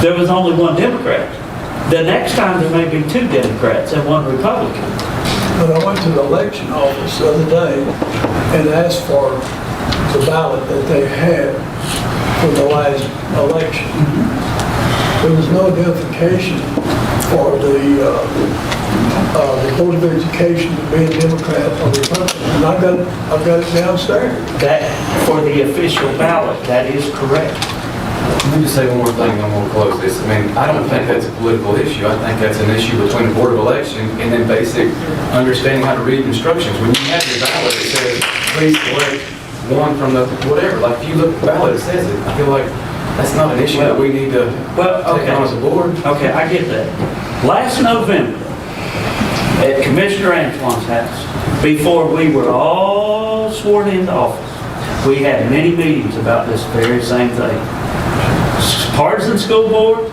there was only one Democrat. The next time, there may be two Democrats and one Republican. But I went to the election office the other day and asked for the ballot that they had for the last election. There was no identification for the, uh, uh, the Board of Education to be a Democrat or Republican. And I got, I've got it downstairs. That, for the official ballot, that is correct. Let me just say one more thing, and I'm gonna close this. I mean, I don't think that's a political issue. I think that's an issue between the Board of Election and then basic understanding how to read instructions. When you have your ballot, it says, please select one from the, whatever, like, if you look at the ballot, it says it. I feel like that's not an issue that we need to Well, okay. take on as a board. Okay, I get that. Last November, at Commissioner Antoine's house, before we were all sworn into office, we had many meetings about this very same thing. Partisan school board,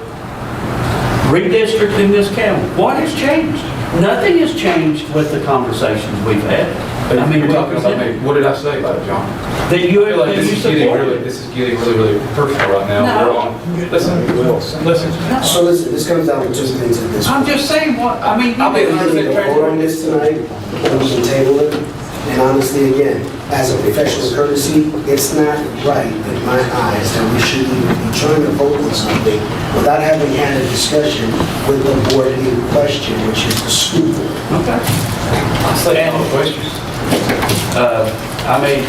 redistricting this county. What has changed? Nothing has changed with the conversations we've had. I mean, You're we- talking about me. What did I say about it, John? That you, I feel like that this you is getting supported. really, it. this is getting really, really personal right now. No. We're on, listen, listen. So listen, this comes down to two things at this. I'm just saying what, I mean, I'll be you- We can either vote on this tonight, or we can table it. And honestly, again, as a professional courtesy, it's not right in my eyes that we should even be trying to vote on something without having had a discussion with the board in question, which is the school board. Okay. I'll say all the questions. Uh, I mean,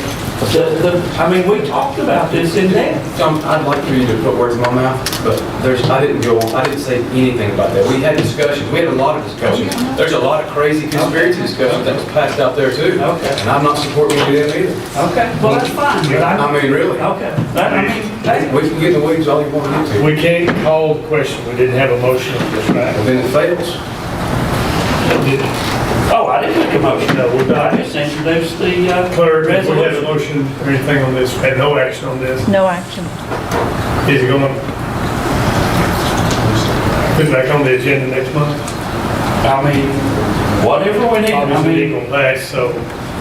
the, the, I mean, we talked about this in depth. Tom, I'd like for you to put words in my mouth, but there's, I didn't go, I didn't say anything about that. We had discussions, we had a lot of discussions. There's a lot of crazy conspiracy discussions that was passed out there too. Okay. And I'm not supporting any of them either. Okay. Well, that's fine. but I- I mean, really. Okay, that, I mean, that, We can get in the weeds all you want to. We can't call the question, we didn't have a motion on this, Well, right? Then it fails. oh, I didn't make a motion, no, we're not, I just introduced the, uh. Clerk, if we had a resolution. motion or anything on this, had no action on this, No action. is it going to put back on the agenda next month? I mean, whatever we need, I Obviously, it mean, ain't going to pass, so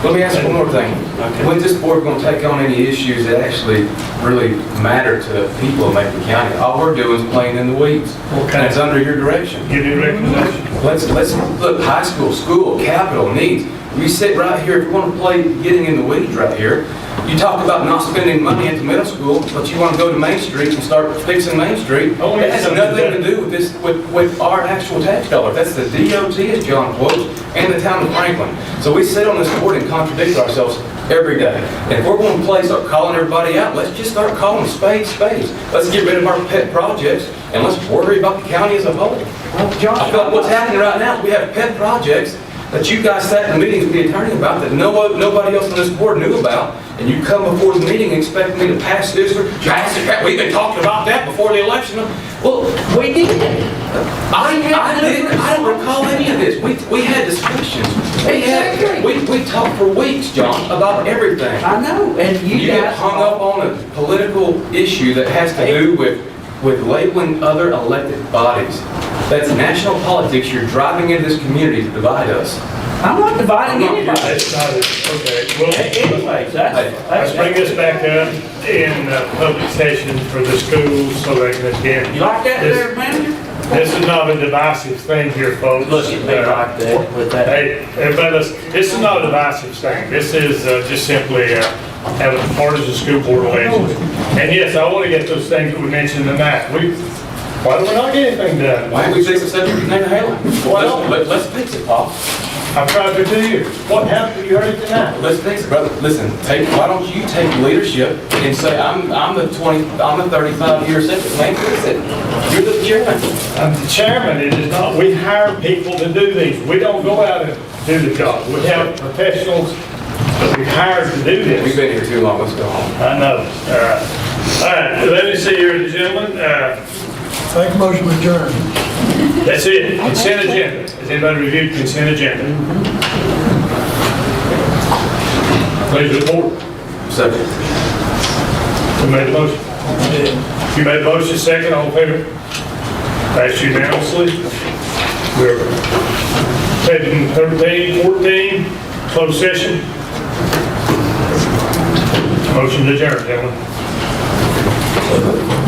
Let me ask you one more thing. Okay. When this board going to take on any issues that actually really matter to the people of Macon County? All we're doing is playing in the weeds. And it's under your direction. give you a recommendation. Let's, let's, look, high school, school, capital, needs. We sit right here, if you want to play getting in the weeds right here, you talk about not spending money at the middle school, but you want to go to Main Street and start fixing Main Street. Only That has something nothing to that- do with this, with, with our actual tax dollar. That's the DOT, as John quotes, and the town of Franklin. So we sit on this board and contradict ourselves every day. And if we're going to play, start calling everybody out, let's just start calling spades spades. Let's get rid of our pet projects and let's worry about the county as a whole. I feel like what's happening right now, is we have pet projects that you guys sat in meetings with the attorney about that no, one- nobody else on this board knew about, and you come before the meeting expecting me to pass this or pass that, we've been talking about that before the election. Well, we did it. I, I didn't, I don't recall any of this. We, we had discussions. We had, we, we talked for weeks, John, about everything. I know, and You you get guys. hung up on a political issue that has to do with, with labeling other elected bodies. That's national politics, you're driving into this community to divide us. I'm not dividing I'm not- anybody. That's not, it. okay, well, Anyways, that's, that's. let's bring this back up in uh, public session for the schools, so they can You attend. like that there, manager? This is not a divisive thing here, folks. Look at me Uh, like that with that. Hey, everybody, listen, this is not a divisive thing. This is uh, just simply uh, having partisan school board elections. And yes, I want to get those things that we mentioned tonight. We, why do we not get anything done? Why don't we fix the subject of Nathan Halen? Why not? Let's, let's fix it, Paul. I've tried for two years. What happened? You heard it tonight. Let's fix it, brother. Listen, take, why don't you take leadership and say, I'm, I'm the 20, I'm the 35 year sentence, man, fix it. You're the chairman. I'm the chairman, it is not, we hire people to do these. We don't go out and do the job. We have professionals that we hire to do this. We've been here too long, let's go home. I know, all right. All right, let me see here, gentlemen, uh, Make a motion to adjourn. That's it, consent agenda. Has anybody reviewed consent agenda? Please report. Subject. Who made the motion? You made the motion, second, all in favor? Passed unanimously. We're heading 13, 14, closed session. Motion to adjourn, gentlemen.